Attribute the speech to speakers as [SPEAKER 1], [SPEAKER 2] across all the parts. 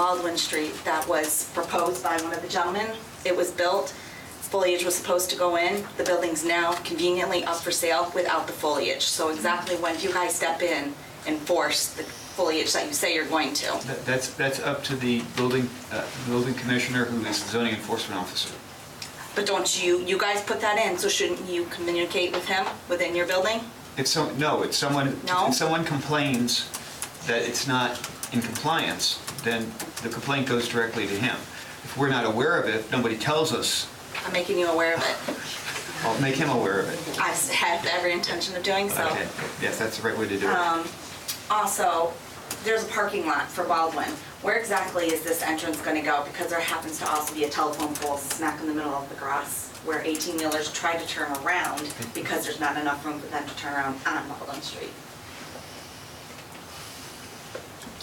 [SPEAKER 1] Baldwin Street that was proposed by one of the gentlemen. It was built, foliage was supposed to go in. The building's now conveniently up for sale without the foliage. So exactly when you guys step in and force the foliage that you say you're going to.
[SPEAKER 2] That- That's, that's up to the building, uh, building commissioner, who is the zoning enforcement officer.
[SPEAKER 1] But don't you, you guys put that in, so shouldn't you communicate with him within your building?
[SPEAKER 2] It's some, no, it's someone,
[SPEAKER 1] No?
[SPEAKER 2] if someone complains that it's not in compliance, then the complaint goes directly to him. If we're not aware of it, nobody tells us,
[SPEAKER 1] I'm making you aware of it.
[SPEAKER 2] I'll make him aware of it.
[SPEAKER 1] I s- had every intention of doing so. Um,
[SPEAKER 2] Okay, yes, that's the right way to do it.
[SPEAKER 1] Also, there's a parking lot for Baldwin. Where exactly is this entrance gonna go? Because there happens to also be a telephone pole smack in the middle of the grass where 18-wheelers try to turn around because there's not enough room for them to turn around on Baldwin Street.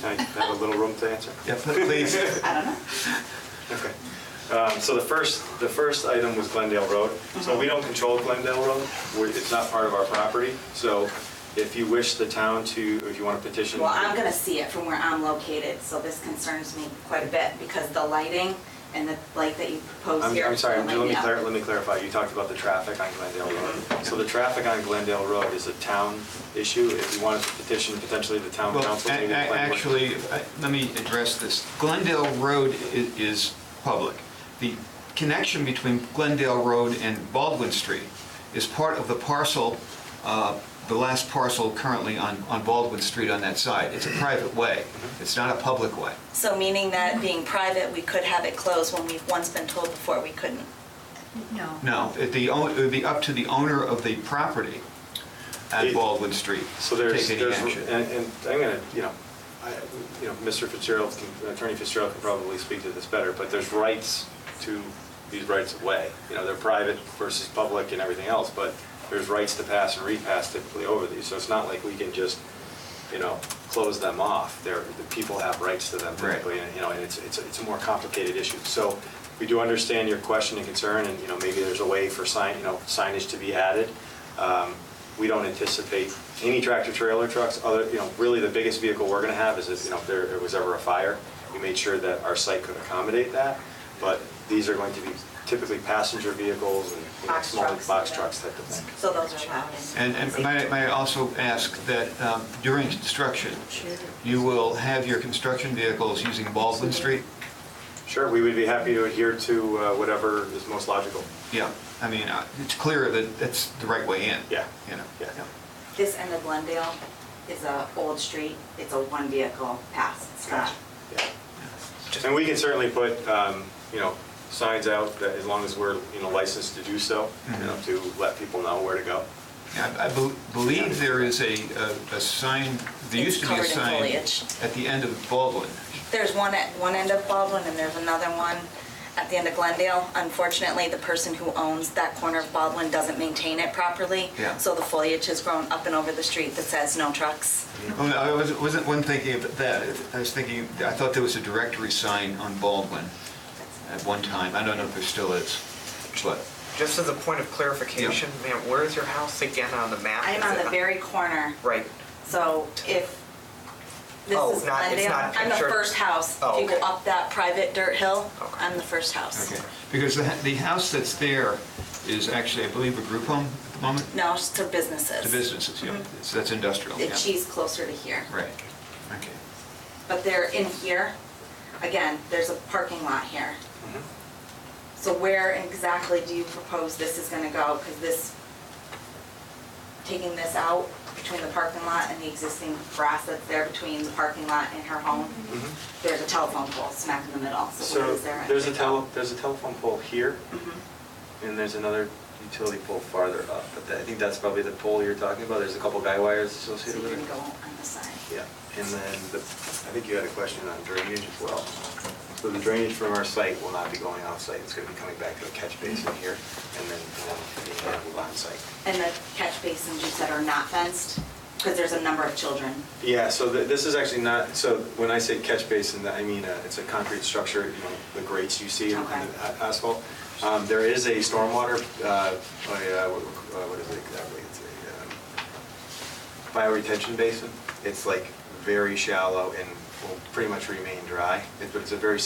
[SPEAKER 3] I have a little room to answer.
[SPEAKER 2] Yeah, pl- please,
[SPEAKER 1] I don't know.
[SPEAKER 3] Okay. Um, So the first, the first item was Glendale Road. So we don't control Glendale Road. We're- It's not part of our property. So if you wish the town to, if you want to petition.
[SPEAKER 1] Well, I'm gonna see it from where I'm located, so this concerns me quite a bit because the lighting and the light that you propose
[SPEAKER 3] I'm
[SPEAKER 1] here.
[SPEAKER 3] I'm sorry,
[SPEAKER 1] don't light
[SPEAKER 3] let me
[SPEAKER 1] up. Mm-hmm.
[SPEAKER 3] clar- let me clarify. You talked about the traffic on Glendale Road. So the traffic on Glendale Road is a town issue. If you wanted to petition potentially the town
[SPEAKER 2] well,
[SPEAKER 3] council.
[SPEAKER 2] a-
[SPEAKER 3] maybe
[SPEAKER 2] a-
[SPEAKER 3] the planning board.
[SPEAKER 2] actually, I- let me address this. Glendale Road i- is public. The connection between Glendale Road and Baldwin Street is part of the parcel, uh, the last parcel currently on on Baldwin Street on that side. It's a private way, it's not a public way.
[SPEAKER 1] So meaning that being private, we could have it closed when we've once been told before we couldn't.
[SPEAKER 4] No.
[SPEAKER 2] No, it the own- it would be up to the owner of the property at
[SPEAKER 3] It-
[SPEAKER 2] Baldwin Street
[SPEAKER 3] So
[SPEAKER 2] to
[SPEAKER 3] there's,
[SPEAKER 2] take any
[SPEAKER 3] there's,
[SPEAKER 2] action.
[SPEAKER 3] and, and I'm gonna, you know, I, you know, Mr. Fitzgerald, can- Attorney Fitzgerald can probably speak to this better, but there's rights to these rights of way. You know, they're private versus public and everything else, but there's rights to pass and repass typically over these. So it's not like we can just, you know, close them off. They're, the people have rights to them
[SPEAKER 2] Right.
[SPEAKER 3] typically, and, you know, and it's, it's, a- it's a more complicated issue. So we do understand your question and concern, and, you know, maybe there's a way for sign, you know, signage to be added. Um, We don't anticipate any tractor-trailer trucks, other, you know, really the biggest vehicle we're gonna have is if, you know, if there there was ever a fire. We made sure that our site could accommodate that, but these are going to be typically passenger vehicles and you know,
[SPEAKER 1] Box
[SPEAKER 3] small
[SPEAKER 1] trucks.
[SPEAKER 3] box trucks type of thing.
[SPEAKER 1] So those are allowed.
[SPEAKER 2] And and may I- may I also ask that um, during construction, you will have your construction vehicles using Baldwin Street?
[SPEAKER 3] Sure, we would be happy to adhere to uh, whatever is most logical.
[SPEAKER 2] Yeah, I mean, uh, it's clear that that's the right way in.
[SPEAKER 3] Yeah.
[SPEAKER 2] You know?
[SPEAKER 3] Yeah.
[SPEAKER 1] This end of Glendale is a old street, it's a one vehicle pass, it's not.
[SPEAKER 3] Yeah. And we can certainly put, um, you know, signs out that as long as we're, you know, licensed to do so, you know, to let people know where to go.
[SPEAKER 2] Yeah, I I bel- believe there is a a- a sign, there
[SPEAKER 1] It's
[SPEAKER 2] used to be a
[SPEAKER 1] covered in
[SPEAKER 2] sign
[SPEAKER 1] foliage.
[SPEAKER 2] at the end of Baldwin.
[SPEAKER 1] There's one at one end of Baldwin and there's another one at the end of Glendale. Unfortunately, the person who owns that corner of Baldwin doesn't maintain it properly.
[SPEAKER 2] Yeah.
[SPEAKER 1] So the foliage has grown up and over the street that says no trucks.
[SPEAKER 2] Oh, no, I wasn't- wasn't one thinking of that, I was thinking, I thought there was a directory sign on Baldwin at one time, I don't know if there still is, but,
[SPEAKER 5] Just as a point of clarification, ma'am, where is your house again on the map?
[SPEAKER 1] I'm
[SPEAKER 5] Is
[SPEAKER 1] on
[SPEAKER 5] it
[SPEAKER 1] the very corner,
[SPEAKER 5] Right,
[SPEAKER 1] so if this
[SPEAKER 5] Oh,
[SPEAKER 1] is
[SPEAKER 5] not- it's
[SPEAKER 1] Glendale,
[SPEAKER 5] not
[SPEAKER 1] I'm the
[SPEAKER 5] pictured.
[SPEAKER 1] first house.
[SPEAKER 5] Oh,
[SPEAKER 1] If you go
[SPEAKER 5] okay.
[SPEAKER 1] up that private dirt hill,
[SPEAKER 5] Okay.
[SPEAKER 1] I'm the first house.
[SPEAKER 2] okay. Because the ha- the house that's there is actually, I believe, a group home at the moment?
[SPEAKER 1] No, it's to businesses.
[SPEAKER 2] The businesses, yeah, so that's industrial, yeah.
[SPEAKER 1] The cheese closer to here.
[SPEAKER 2] Right, okay.
[SPEAKER 1] But they're in here. Again, there's a parking lot here.
[SPEAKER 5] Mm-hmm.
[SPEAKER 1] So where exactly do you propose this is gonna go? Because this, taking this out between the parking lot and the existing grass that's there between the parking lot and her home,
[SPEAKER 5] Mm-hmm.
[SPEAKER 1] there's a telephone pole smack in the middle. So where
[SPEAKER 3] So
[SPEAKER 1] is there?
[SPEAKER 3] there's a tele, there's a telephone pole here,
[SPEAKER 1] Mm-hmm.
[SPEAKER 3] and there's another utility pole farther up, but that- I think that's probably the pole you're talking about. There's a couple guy wires
[SPEAKER 1] So
[SPEAKER 3] associated
[SPEAKER 1] you're
[SPEAKER 3] with
[SPEAKER 1] gonna
[SPEAKER 3] it.
[SPEAKER 1] go on the side.
[SPEAKER 3] Yeah, and then the, I think you had a question on drainage as well. So the drainage from our site will not be going off-site, it's gonna be coming back to a catch basin here, and then um, being handled on-site.
[SPEAKER 1] And the catch basins you said are not fenced? Because there's a number of children.
[SPEAKER 3] Yeah, so th- this is actually not, so when I say catch basin, I mean, uh, it's a concrete structure, you know, the grates you see in in the
[SPEAKER 1] Okay.
[SPEAKER 3] a- asphalt. Um, There is a stormwater, uh, a, uh, what uh, what is it exactly? It's uh, a um, bioretention basin. It's like very shallow and will pretty much remain dry. It- It's a very